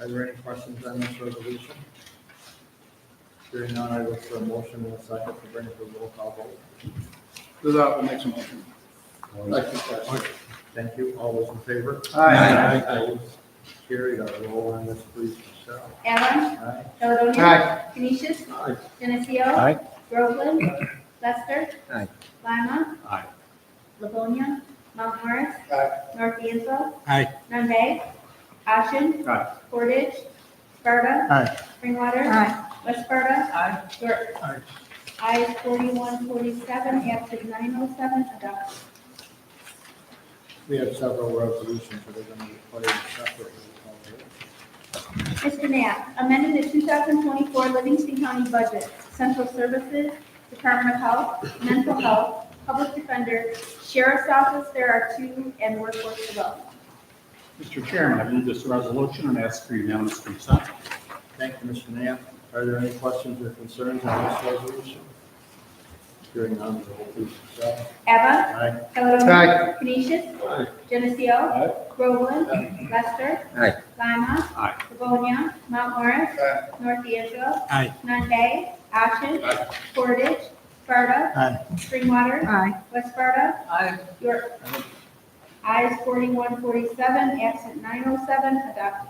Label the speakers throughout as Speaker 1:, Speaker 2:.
Speaker 1: Are there any questions on this resolution? Hearing none, I look for a motion and a second to bring it to a roll call vote.
Speaker 2: Lizardo makes a motion. Second, Sexton.
Speaker 1: Thank you. All those in favor?
Speaker 2: Aye.
Speaker 1: Opposed? Carried. Our roll on this, please, Michelle.
Speaker 3: Allen,
Speaker 1: Aye.
Speaker 3: Caledonia.
Speaker 2: Aye.
Speaker 3: Canisius.
Speaker 1: Aye.
Speaker 3: Geneseo.
Speaker 4: Aye.
Speaker 3: Groveland. Lester.
Speaker 4: Aye.
Speaker 3: Lima.
Speaker 4: Aye.
Speaker 3: Livonia. Mount Morris.
Speaker 2: Aye.
Speaker 3: North D'Anville.
Speaker 4: Aye.
Speaker 3: Nunde. Ashen.
Speaker 4: Aye.
Speaker 3: Portage. Sparta.
Speaker 4: Aye.
Speaker 3: Springwater.
Speaker 5: Aye.
Speaker 3: West Sparta.
Speaker 5: Aye.
Speaker 3: York.
Speaker 4: Aye.
Speaker 3: Ayes forty-one forty-seven, absent nine oh seven, adopted.
Speaker 1: We have several resolutions that are going to be played separately. roll call vote.
Speaker 3: Mr. Knapp, amending the 2024 Livingston County budget, Central Services, Department of Health, Mental Health, Public Defender, Sheriff's Office, there are two, and Workforce Development.
Speaker 6: Mr. Chairman, I move this resolution and ask for unanimous consent.
Speaker 1: Thank you, Mr. Knapp. Are there any questions or concerns on this resolution? Hearing none, roll please, Michelle.
Speaker 3: Eva,
Speaker 1: Aye.
Speaker 3: Caledonia.
Speaker 2: Aye.
Speaker 3: Canisius. Geneseo. Groveland. Lester.
Speaker 4: Aye.
Speaker 3: Lima.
Speaker 6: Aye.
Speaker 3: Livonia. Mount Morris.
Speaker 2: Aye.
Speaker 3: North D'Anville.
Speaker 4: Aye.
Speaker 3: Nunde. Ashen. Portage. Sparta.
Speaker 4: Aye.
Speaker 3: Springwater.
Speaker 5: Aye.
Speaker 3: West Sparta.
Speaker 5: Aye.
Speaker 3: York. Ayes forty-one forty-seven, absent nine oh seven, adopted.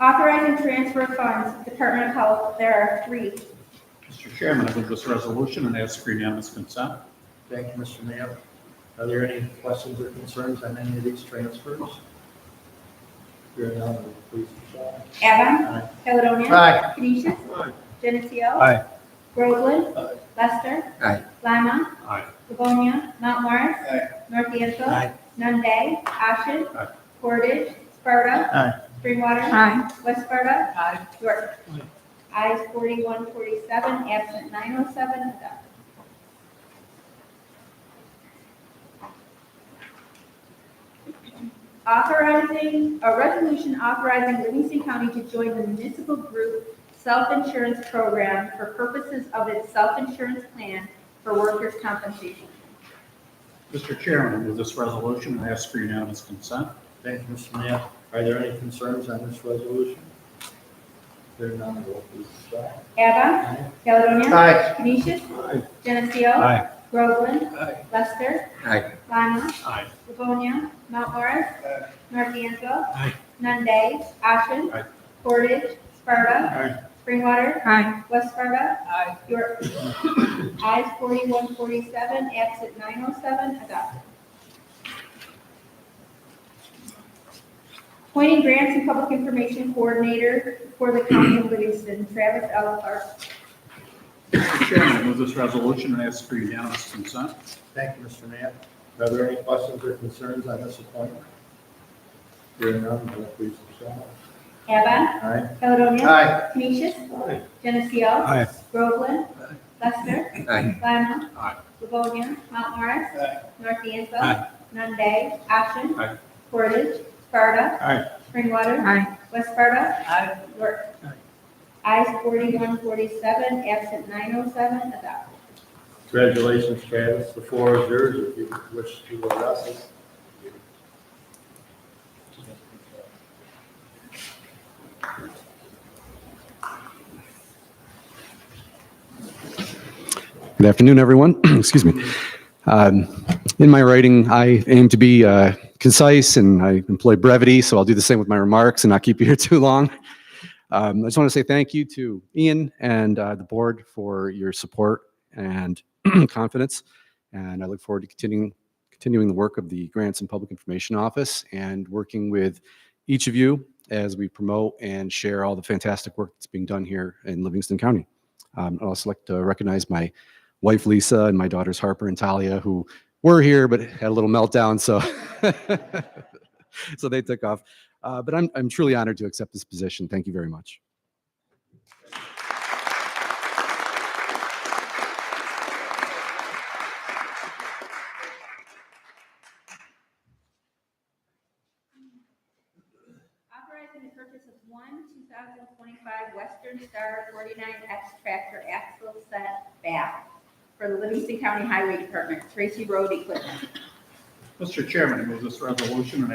Speaker 3: Authorize and transfer funds, Department of Health, there are three.
Speaker 6: Mr. Chairman, I move this resolution and ask for unanimous consent.
Speaker 1: Thank you, Mr. Knapp. Are there any questions or concerns on any of these transfers? Hearing none, roll please, Michelle.
Speaker 3: Avon,
Speaker 1: Aye.
Speaker 3: Caledonia.
Speaker 2: Aye.
Speaker 3: Canisius. Geneseo.
Speaker 4: Aye.
Speaker 3: Groveland.
Speaker 2: Aye.
Speaker 3: Lester.
Speaker 4: Aye.
Speaker 3: Lima.
Speaker 6: Aye.
Speaker 3: Livonia. Mount Morris.
Speaker 2: Aye.
Speaker 3: North D'Anville.
Speaker 4: Aye.
Speaker 3: Nunde. Ashen.
Speaker 6: Aye.
Speaker 3: Portage. Sparta.
Speaker 4: Aye.
Speaker 3: Springwater.
Speaker 5: Aye.
Speaker 3: West Sparta.
Speaker 5: Aye.
Speaker 3: York. Ayes forty-one forty-seven, absent nine oh seven, adopted. Authorizing, a resolution authorizing Livingston County to join the municipal group self-insurance program for purposes of its self-insurance plan for workers' compensation.
Speaker 6: Mr. Chairman, I move this resolution and ask for unanimous consent.
Speaker 1: Thank you, Mr. Knapp. Are there any concerns on this resolution? Hearing none, roll please, Michelle.
Speaker 3: Eva,
Speaker 1: Aye.
Speaker 3: Caledonia.
Speaker 2: Aye.
Speaker 3: Canisius. Geneseo.
Speaker 4: Aye.
Speaker 3: Groveland.
Speaker 2: Aye.
Speaker 3: Lester.
Speaker 4: Aye.
Speaker 3: Lima.
Speaker 6: Aye.
Speaker 3: Livonia, Mount Morris,
Speaker 2: Aye.
Speaker 3: North D'Anville.
Speaker 4: Aye.
Speaker 3: Nunde, Ashen.
Speaker 6: Aye.
Speaker 3: Portage, Sparta.
Speaker 6: Aye.
Speaker 3: Springwater,
Speaker 5: Aye.
Speaker 3: West Sparta,
Speaker 5: Aye.
Speaker 3: York. Eyes forty-one forty-seven, absent nine oh seven, adopted. Appointing grants and public information coordinator for the county of Livingston, Travis L. Clark.
Speaker 6: Mr. Chairman, I move this resolution and ask for unanimous consent.
Speaker 1: Thank you, Mr. Knapp. Are there any questions or concerns on this appointment? Hearing none, roll please, Michelle.
Speaker 3: Evan,
Speaker 1: Aye.
Speaker 3: Caledonia.
Speaker 2: Aye.
Speaker 3: Canisius.
Speaker 1: Aye.
Speaker 3: Geneseo.
Speaker 4: Aye.
Speaker 3: Groveland. Lester.
Speaker 4: Aye.
Speaker 3: Lima.
Speaker 6: Aye.
Speaker 3: Livonia. Mount Morris.
Speaker 2: Aye.
Speaker 3: North D'Anville.
Speaker 6: Aye.
Speaker 3: Nunde. Ashen.
Speaker 6: Aye.
Speaker 3: Portage. Sparta.
Speaker 6: Aye.
Speaker 3: Springwater.
Speaker 5: Aye.
Speaker 3: West Sparta.
Speaker 5: Aye.
Speaker 3: York. Eyes forty-one forty-seven, absent nine oh seven, adopted.
Speaker 1: Congratulations, Travis. The floor is yours if you wish to address us.
Speaker 7: Good afternoon, everyone. Excuse me. Um, In my writing, I aim to be uh, concise and I employ brevity, so I'll do the same with my remarks and not keep you here too long. Um, I just want to say thank you to Ian and uh, the board for your support and confidence. And I look forward to continuing, continuing the work of the Grants and Public Information Office and working with each of you as we promote and share all the fantastic work that's being done here in Livingston County. Um, I'd also like to recognize my wife Lisa and my daughters Harper and Talia, who were here but had a little meltdown, so so they took off. Uh, but I'm I'm truly honored to accept this position. Thank you very much.
Speaker 3: Authorizing the purchase of one two thousand twenty-five Western Star forty-nine X tractor axle set back for the Livingston County Highway Department, Tracy Road equipment.
Speaker 6: Mr. Chairman, I move this resolution and